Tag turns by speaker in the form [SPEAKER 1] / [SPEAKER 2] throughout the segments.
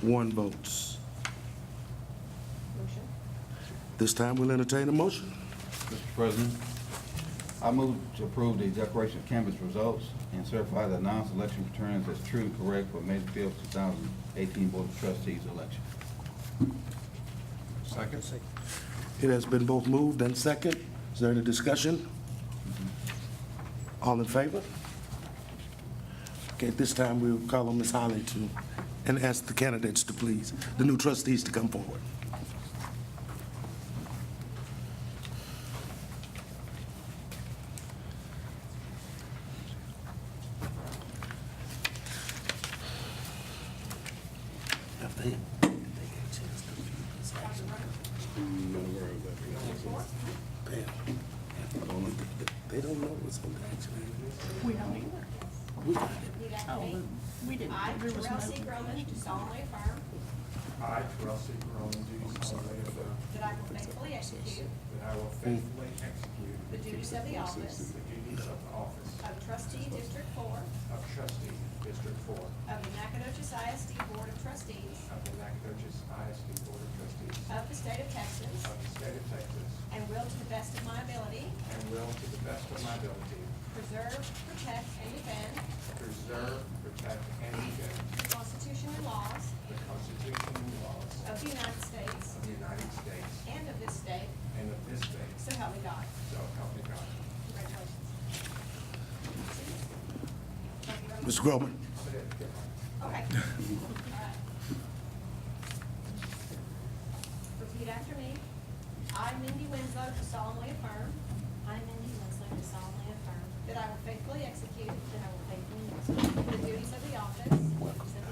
[SPEAKER 1] one votes.
[SPEAKER 2] Motion.
[SPEAKER 1] This time we'll entertain a motion.
[SPEAKER 3] Mr. President, I move to approve the declaration of canvas results and certify the non-selection returns as true and correct for May fifth, two thousand eighteen Board of Trustees election.
[SPEAKER 1] It has been both moved and second. Is there any discussion? All in favor? Okay, at this time, we'll call on Ms. Holly to, and ask the candidates to please, the new trustees to come forward. They don't know what's on
[SPEAKER 4] We don't either.
[SPEAKER 2] You got
[SPEAKER 4] Oh,
[SPEAKER 2] me?
[SPEAKER 4] but we didn't,
[SPEAKER 2] I,
[SPEAKER 4] there was
[SPEAKER 2] Terrell C.
[SPEAKER 4] no.
[SPEAKER 2] Groman, do solemnly affirm
[SPEAKER 5] I, Terrell C. Pearl, do solemnly affirm
[SPEAKER 2] that I will faithfully execute
[SPEAKER 5] that I will faithfully execute
[SPEAKER 2] the duties of the office
[SPEAKER 5] the duties of the office
[SPEAKER 2] of trustee District Four
[SPEAKER 5] of trustee, District Four, of
[SPEAKER 2] of the Nacogdoches ISD Board of Trustees
[SPEAKER 5] the Nacogdoches ISD Board of Trustees
[SPEAKER 2] of the State of Texas
[SPEAKER 5] of the State of Texas,
[SPEAKER 2] and will to the best of my ability
[SPEAKER 5] and will, to the best of my ability,
[SPEAKER 2] preserve, protect, and defend
[SPEAKER 5] preserve, protect, and defend
[SPEAKER 2] the Constitution and laws
[SPEAKER 5] the Constitution and laws
[SPEAKER 2] of the United States
[SPEAKER 5] of the United States
[SPEAKER 2] and of this state,
[SPEAKER 5] and of this state,
[SPEAKER 2] so help me God.
[SPEAKER 5] so help me God.
[SPEAKER 2] Congratulations. Thank you very much.
[SPEAKER 1] Mr. Groman?
[SPEAKER 2] Okay. Alright. Repeat after me. I, Mindy Winslow, do solemnly affirm
[SPEAKER 6] I, Mindy Winslow, do solemnly affirm
[SPEAKER 2] that I will faithfully execute
[SPEAKER 6] that I will faithfully execute
[SPEAKER 2] the duties of the office
[SPEAKER 6] the duties of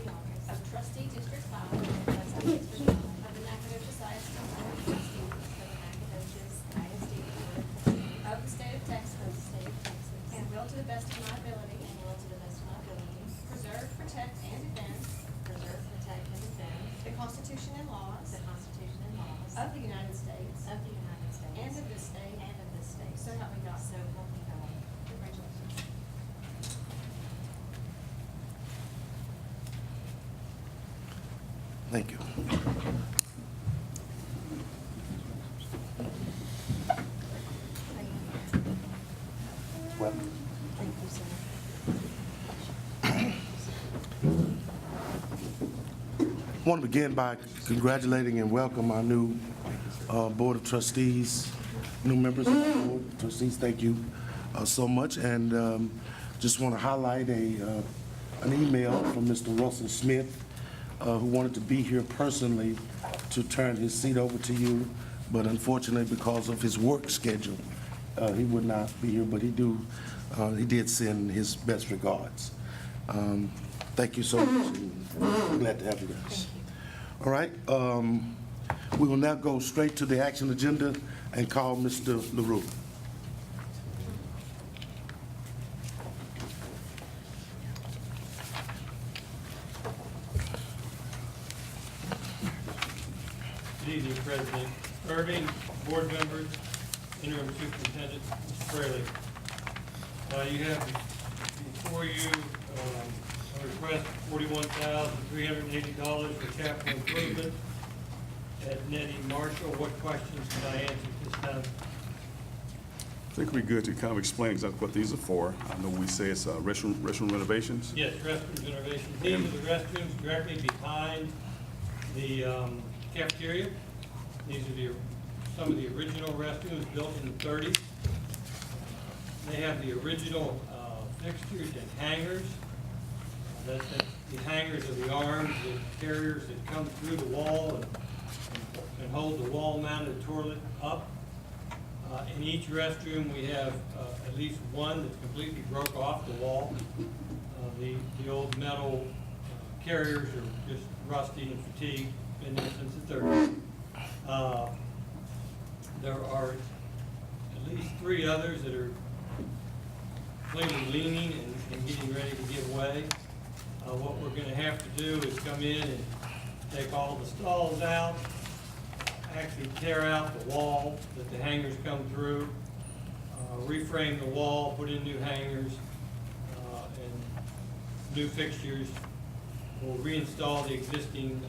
[SPEAKER 6] the office
[SPEAKER 2] of trustee District Five
[SPEAKER 6] of Trustees for the Board
[SPEAKER 2] of the Nacogdoches ISD
[SPEAKER 6] of Trustees for the Nacogdoches ISD Board of Trustees
[SPEAKER 2] of the State of
[SPEAKER 6] of the
[SPEAKER 2] Texas
[SPEAKER 6] State of Texas
[SPEAKER 2] and will to the best of my ability
[SPEAKER 6] and will to the best of my ability
[SPEAKER 2] preserve, protect, and defend
[SPEAKER 6] preserve, protect, and defend
[SPEAKER 2] the Constitution and laws
[SPEAKER 6] the Constitution and laws
[SPEAKER 2] of the United States
[SPEAKER 6] of the United States
[SPEAKER 2] and of this state.
[SPEAKER 6] and of this state.
[SPEAKER 2] So help me God.
[SPEAKER 6] So help me God.
[SPEAKER 2] Congratulations.
[SPEAKER 1] Thank you.
[SPEAKER 6] Thank you, sir.
[SPEAKER 1] I want to begin by congratulating and welcome our new uh, Board of Trustees, new members of the Board of Trustees. Thank you uh, so much. And um, just want to highlight a, uh, an email from Mr. Russell Smith, uh, who wanted to be here personally to turn his seat over to you, but unfortunately, because of his work schedule, uh, he would not be here, but he do, uh, he did send his best regards. Um, Thank you so much, and glad to have you guys. All right, um, we will now go straight to the action agenda and call Mr. LaRue.
[SPEAKER 7] Good evening, President Irving, board members, interim superintendent, Mr. Fraley. Uh, you have before you, um, a request for forty-one thousand, three hundred and eighty dollars for capital improvement at Nettie Marshall. What questions can I answer at this time?
[SPEAKER 8] I think it'd be good to kind of explain exactly what these are for. I know we say it's uh, restroom restroom renovations.
[SPEAKER 7] Yes, restroom renovations. These are the restrooms directly behind the um, cafeteria. These are the, some of the original restrooms built in the thirties. They have the original uh, fixtures and hangers. Uh, That's the- the hangers of the arms, the carriers that come through the wall and- and hold the wall-mounted toilet up. Uh, In each restroom, we have uh, at least one that's completely broke off the wall. Uh, The, the old metal uh, carriers are just rusty and fatigued, been there since the thirties. Uh, There are at least three others that are plainly leaning and, and getting ready to give way. Uh, what we're gonna have to do is come in and take all the stalls out, actually tear out the wall that the hangers come through, uh, reframe the wall, put in new hangers, uh, and new fixtures. We'll reinstall the existing